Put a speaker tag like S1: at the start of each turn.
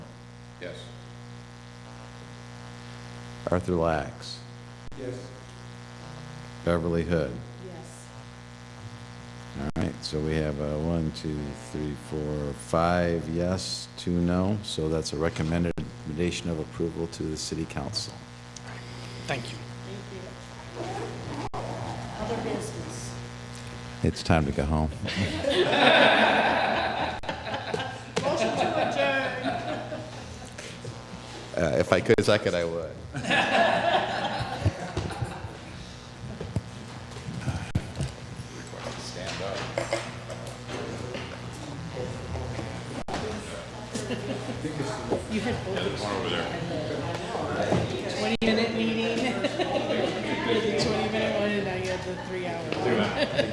S1: Yes.
S2: Arthur Lax,
S1: Yes.
S2: Beverly Hood.
S3: Yes.
S2: All right, so we have uh, one, two, three, four, five yes, two no. So that's a recommended recommendation of approval to the city council.
S4: Thank you.
S3: Thank you. Other business.
S2: It's time to go home.
S3: Motion to adjourn.
S2: Uh, If I could second, I would.
S1: Stand up.
S3: Twenty-minute meeting. You had the twenty-minute one, and now you have the three-hour one.